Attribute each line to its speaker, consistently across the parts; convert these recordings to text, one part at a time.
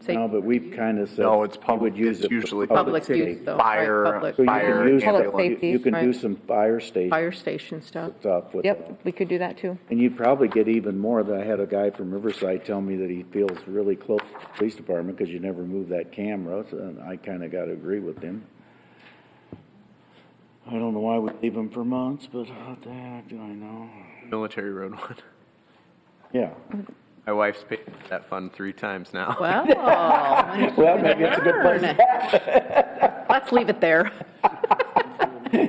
Speaker 1: say
Speaker 2: No, but we've kind of said.
Speaker 3: No, it's
Speaker 2: we
Speaker 3: public-
Speaker 2: would use
Speaker 3: it's
Speaker 2: it for
Speaker 3: usually
Speaker 1: public use though. right,
Speaker 3: Fire,
Speaker 1: public-
Speaker 2: So you can
Speaker 3: fire,
Speaker 2: use-
Speaker 4: Public
Speaker 3: ambulance.
Speaker 4: safety.
Speaker 2: You can do
Speaker 1: right.
Speaker 2: some fire station
Speaker 1: Fire station stuff.
Speaker 2: stuff with that.
Speaker 4: Yep, we could do that too.
Speaker 2: And you'd probably get even more than I had a guy from Riverside tell me that he feels really close to the police department because you never move that camera. So and I kind of got to agree with him. I don't know why we leave him for months, but what the heck do I know?
Speaker 5: Military Road one.
Speaker 2: Yeah.
Speaker 5: My wife's paid for that fund three times now.
Speaker 1: Well,
Speaker 2: Well, maybe it's a good place.
Speaker 1: burn. let's leave it there.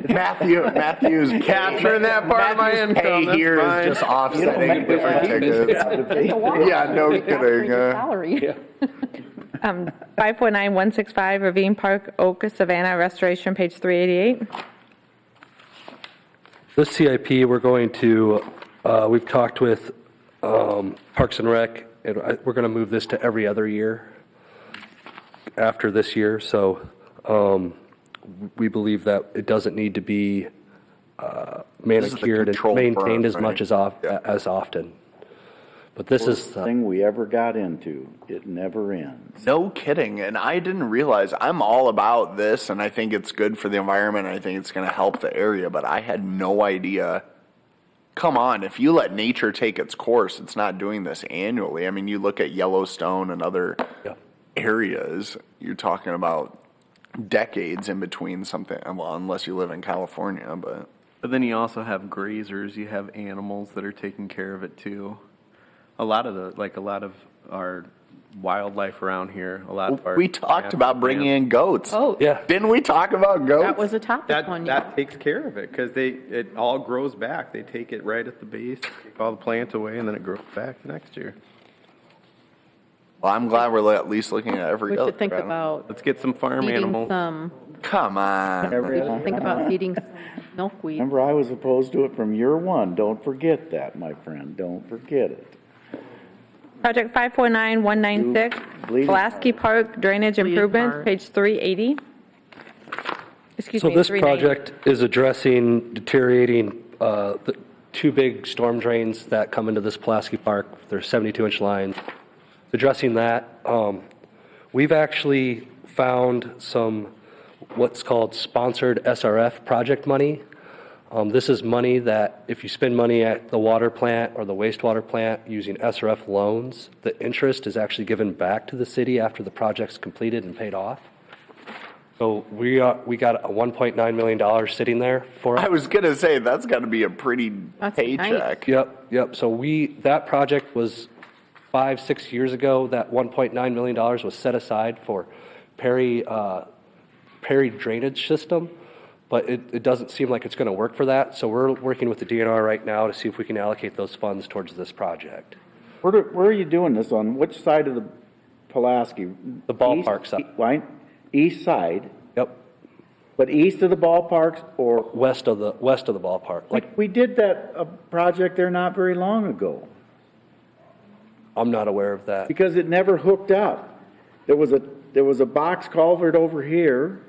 Speaker 3: Matthew, Matthew's.
Speaker 5: Capturing that part of my
Speaker 3: Matthew's
Speaker 5: income,
Speaker 3: pay
Speaker 5: that's
Speaker 3: here is
Speaker 5: fine.
Speaker 3: just
Speaker 2: You don't
Speaker 3: offsetting
Speaker 2: make this
Speaker 3: different
Speaker 2: a business
Speaker 3: tickets.
Speaker 2: job to be.
Speaker 3: Yeah, no kidding. uh,
Speaker 4: Salary.
Speaker 6: Um, 549-165 Ravine Park, Oak Savannah Restoration, page 388.
Speaker 7: This CIP, we're going to, uh, we've talked with um, Parks and Rec, and I- we're going to move this to every other year after this year, so um, we believe that it doesn't need to be uh,
Speaker 3: is the
Speaker 7: manicured and
Speaker 3: control burn,
Speaker 7: maintained as much
Speaker 3: right?
Speaker 7: as of- as often. But this is, uh,
Speaker 2: Thing we ever got into, it never ends.
Speaker 3: No kidding. And I didn't realize I'm all about this and I think it's good for the environment. And I think it's going to help the area, but I had no idea. Come on, if you let nature take its course, it's not doing this annually. I mean, you look at Yellowstone and other
Speaker 7: Yeah.
Speaker 3: areas, you're talking about decades in between something, well, unless you live in California, but.
Speaker 5: But then you also have grazers, you have animals that are taking care of it too. A lot of the, like a lot of our wildlife around here, a lot of our.
Speaker 3: We talked about bringing in goats.
Speaker 1: Oh,
Speaker 7: yeah.
Speaker 3: Didn't we talk about goats?
Speaker 1: that was a topic
Speaker 5: That,
Speaker 1: one year.
Speaker 5: that takes care of it, cause they, it all grows back. They take it right at the base, take all the plants away and then it grows back the next year.
Speaker 3: Well, I'm glad we're at least looking at every
Speaker 1: We
Speaker 3: other.
Speaker 1: should think
Speaker 3: problem.
Speaker 1: about
Speaker 5: Let's get some farm
Speaker 1: feeding
Speaker 5: animals.
Speaker 1: some,
Speaker 3: Come on.
Speaker 1: we should think about feeding some milkweed.
Speaker 2: Remember, I was opposed to it from year one. Don't forget that, my friend. Don't forget it.
Speaker 6: Project 549-196
Speaker 2: Bleeding Heart.
Speaker 6: Pulaski Park Drainage
Speaker 1: Bleeding
Speaker 6: Improvements,
Speaker 1: Heart.
Speaker 6: page 380. Excuse
Speaker 7: so
Speaker 6: me,
Speaker 7: this
Speaker 6: 390.
Speaker 7: project is addressing deteriorating uh, the two big storm drains that come into this Pulaski Park. They're 72-inch lines. Addressing that, um, we've actually found some what's called sponsored SRF project money. Um, This is money that if you spend money at the water plant or the wastewater plant using SRF loans, the interest is actually given back to the city after the project's completed and paid off. So we are, we got a $1.9 million sitting there for
Speaker 3: I
Speaker 7: us.
Speaker 3: was gonna say that's got to be a pretty
Speaker 1: That's
Speaker 3: paycheck.
Speaker 7: Yep, yep. So we, that project was five, six years ago. That $1.9 million was set aside for Perry, uh, Perry drainage system, but it, it doesn't seem like it's going to work for that. So we're working with the DNR right now to see if we can allocate those funds towards this project.
Speaker 2: Where, do- where are you doing this? On which side of the Pulaski?
Speaker 7: The ballpark side.
Speaker 2: East- Right? East side,
Speaker 7: Yep,
Speaker 2: but east of the ballparks or,
Speaker 7: west of the, west of the ballpark. Like,
Speaker 2: like, we did that, uh project there not very long ago.
Speaker 7: I'm not aware of that.
Speaker 2: Because it never hooked up. There was a, there was a box culvert over here.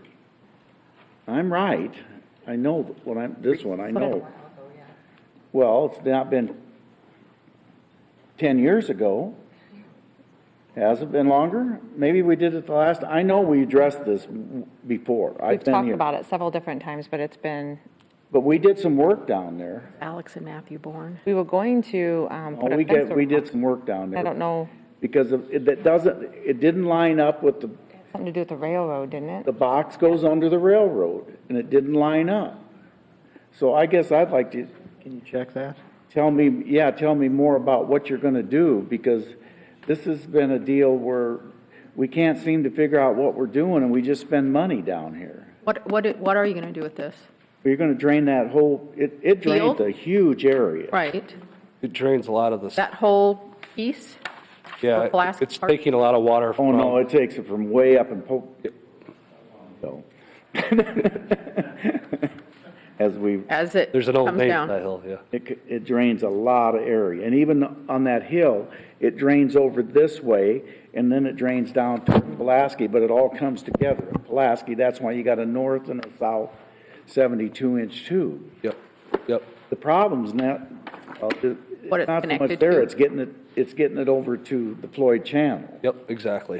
Speaker 2: I'm right. I know what I'm, this one, I know. Well, it's not been ten years ago. Has it been longer? Maybe we did it the last, I know we addressed this before. I've
Speaker 4: We've
Speaker 2: been
Speaker 4: talked
Speaker 2: here.
Speaker 4: about it several different times, but it's been,
Speaker 2: But we did some work down there.
Speaker 1: Alex and Matthew Bourne.
Speaker 4: we were going to, um,
Speaker 2: Oh,
Speaker 4: put a
Speaker 2: We
Speaker 4: fence
Speaker 2: did, we
Speaker 4: around.
Speaker 2: did some work down there.
Speaker 4: I don't know,
Speaker 2: Because of, it, that doesn't, it didn't line up with the
Speaker 4: something to do with the railroad, didn't it?
Speaker 2: the box goes under the railroad, and it didn't line up. So I guess I'd like to. Can you check that? Tell me, yeah, tell me more about what you're gonna do, because this has been a deal where we can't seem to figure out what we're doing, and we just spend money down here.
Speaker 1: What, what, what are you going to do with this?
Speaker 2: You're gonna drain that whole, it, it drains
Speaker 1: Field?
Speaker 2: a huge area.
Speaker 1: Right,
Speaker 7: It drains a lot of the,
Speaker 1: that whole piece?
Speaker 7: yeah,
Speaker 1: the
Speaker 7: it-
Speaker 1: plastic
Speaker 7: it's
Speaker 1: part?
Speaker 7: taking a lot of water
Speaker 2: Oh, no,
Speaker 7: from,
Speaker 2: it takes it from way up in Polk. So. As we
Speaker 1: As it
Speaker 7: there's an old
Speaker 1: comes
Speaker 7: name for
Speaker 1: down?
Speaker 7: that hill, yeah.
Speaker 2: It, c- it drains a lot of area, and even on that hill, it drains over this way, and then it drains down to Pulaski, but it all comes together. in Pulaski, that's why you got a north and a south seventy-two inch tube.
Speaker 7: Yep, yep.
Speaker 2: The problem's not, uh, it-
Speaker 1: What it's
Speaker 2: not so much
Speaker 1: connected
Speaker 2: there,
Speaker 1: to.
Speaker 2: it's getting it, it's getting it over to the Floyd Channel.
Speaker 7: Yep, exactly.